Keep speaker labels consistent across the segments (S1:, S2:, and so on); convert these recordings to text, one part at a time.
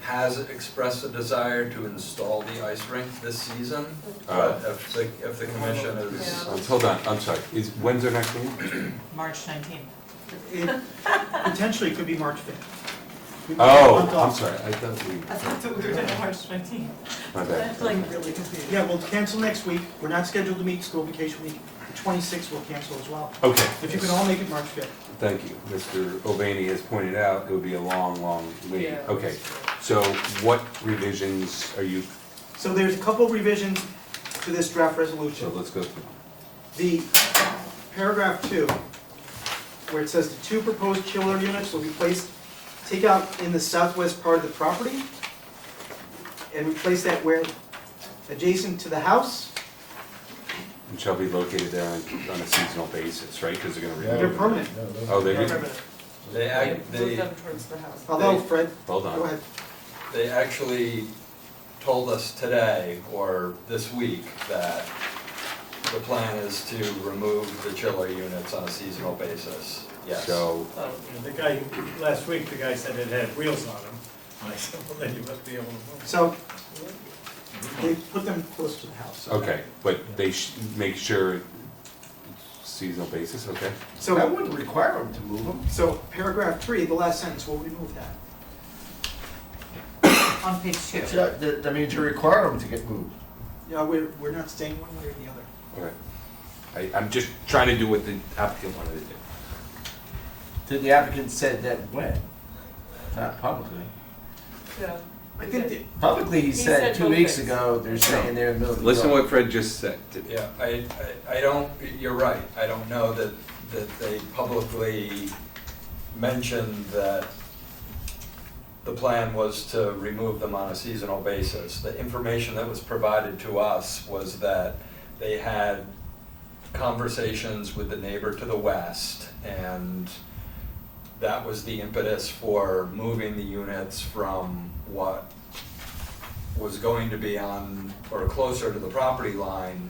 S1: has expressed a desire to install the ice rink this season.
S2: Uh,
S1: But if the, if the commission is,
S2: um, Hold on, I'm sorry, is, when's our next meeting?
S3: March nineteenth.
S4: It Potentially could be March fifth.
S2: Oh, I'm sorry, I thought we,
S3: I thought that we were doing March nineteenth.
S2: my bad.
S3: really confused.
S4: Yeah, we'll cancel next week, we're not scheduled to meet, school vacation week, the twenty-sixth we'll cancel as well.
S2: Okay,
S4: If you can all make it March fifth,
S2: thank you. Mr. Ovani has pointed out, it would be a long, long wait. Okay, so what revisions are you,
S4: so there's a couple revisions to this draft
S2: so
S4: resolution.
S2: let's go through.
S4: The paragraph two, where it says the two proposed chiller units will be placed, take out in the southwest part of the property, and replace that where adjacent to the house,
S2: And shall be located there on, on a seasonal basis, right? Because they're gonna
S4: they're
S2: remove.
S4: permanent.
S2: Oh, they do?
S1: they, ac-
S3: Move
S1: they,
S3: them towards the house.
S4: Although Fred,
S2: Hold
S4: go
S2: on.
S4: ahead,
S1: they actually told us today or this week that the plan is to remove the chiller units on a seasonal basis, yes.
S2: So,
S3: Oh,
S5: And the guy, last week, the guy said it had wheels on them. And I said, well, then you must be able to move.
S4: so they put them close to the house.
S2: okay, but they sh- make sure seasonal basis, okay?
S6: That
S4: So,
S6: wouldn't require them to move them.
S4: so paragraph three, the last sentence, we'll remove that.
S3: on page two.
S6: It's not- that- I mean, to require them to get moved.
S4: Yeah, we're, we're not staying one way or the other.
S2: Okay. I, I'm just trying to do what the applicant wanted to do.
S6: Did the applicant said that when? Not publicly.
S3: Yeah.
S4: I think that
S6: Publicly, he
S3: said
S6: said two
S3: both
S6: weeks
S3: things.
S6: ago, they're saying they're in the middle of the.
S2: Listen
S6: yard.
S2: what Fred just said.
S1: Yeah, I, I I don't, you're right, I don't know that, that they publicly mentioned that the plan was to remove them on a seasonal basis. The information that was provided to us was that they had conversations with the neighbor to the west, and that was the impetus for moving the units from what was going to be on, or closer to the property line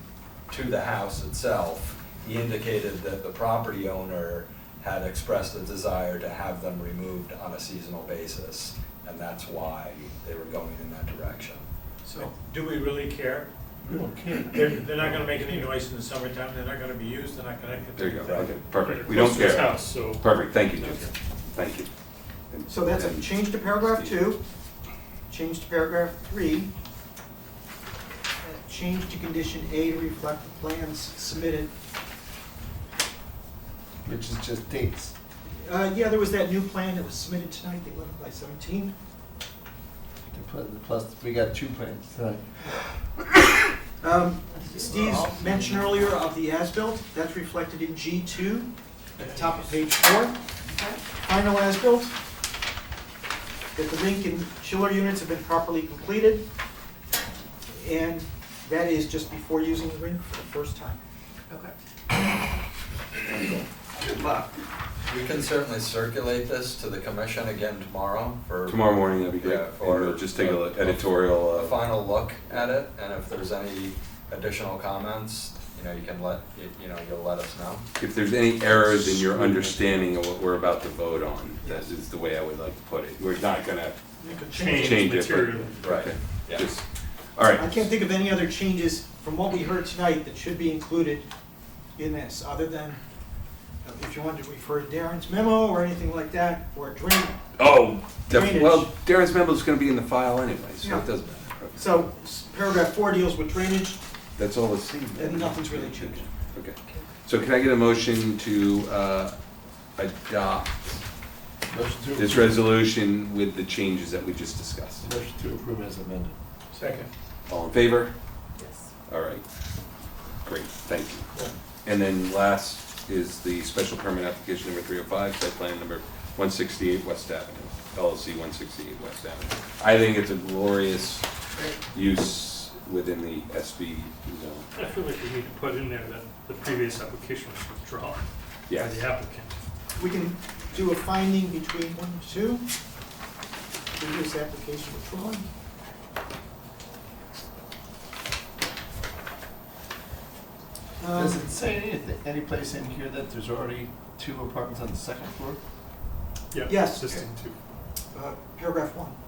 S1: to the house itself. He indicated that the property owner had expressed a desire to have them removed on a seasonal basis, and that's why they were going in that direction.
S5: So, do we really care? We don't care. They're, they're not gonna make any noise in the summertime, they're not gonna be used, they're not gonna.
S2: There you go,
S1: Right.
S2: okay, perfect. We don't
S5: Close to his
S2: care.
S5: house, so.
S2: Perfect, thank you, Jim. Thank you. And-
S4: So that's a
S2: and-
S4: change to paragraph two, change to paragraph three, uh, change to condition A to reflect the plans submitted.
S6: Which is just dates.
S4: Uh, yeah, there was that new plan that was submitted tonight, the eleven by seventeen.
S6: The pl- the Plus, we got two plans tonight.
S4: Um, Steve's mention earlier of the as-built, that's reflected in G two, at the top of page four. Final as-built, that the rink and chiller units have been properly completed, and that is just before using the rink for the first time.
S3: Okay.
S4: Good luck.
S1: We can certainly circulate this to the commission again tomorrow for
S2: Tomorrow morning, that'd be great.
S1: Yeah,
S2: And
S1: or-
S2: we'll just take a look- editorial,
S1: a
S2: uh,
S1: final look at it, and if there's any additional comments, you know, you can let, you- you know, you'll let us know.
S2: if there's any errors in your understanding of what we're about to vote on, that is the way I would like to put it. We're not gonna
S4: Make a change.
S2: change it,
S5: materially.
S2: but. okay,
S1: Yeah.
S2: Just, all right.
S4: I can't think of any other changes from what we heard tonight that should be included in this, other than uh, if you wanted to refer to Darren's memo or anything like that, or drain.
S2: Oh, def-
S4: Drainage.
S2: well, Darren's memo's gonna be in the file anyway, so
S4: Yeah.
S2: it doesn't matter. Okay.
S4: So s- paragraph four deals with drainage,
S2: That's all that's seen.
S4: and nothing's really changed.
S2: Okay. So can I get a motion to uh, adopt
S6: Motion to
S2: this
S6: approve-
S2: resolution with the changes that we just discussed?
S6: Motion to approve as amended.
S5: Second.
S2: All in favor?
S3: Yes.
S2: All right. Great, thank you. And then last is the special permit application number 305, site plan number 168 West Avenue, LLC 168 West Avenue. I think it's a glorious use within the SB zone.
S7: I feel like we need to put in there that the previous application was withdrawn by
S2: Yes.
S7: the applicant.
S4: We can do a finding between one and two, reduce application withdrawn. Um,
S6: Does it say anything, any place in here that there's already two apartments on the second floor?
S4: Yes.
S7: Existing two.
S4: uh, Paragraph one.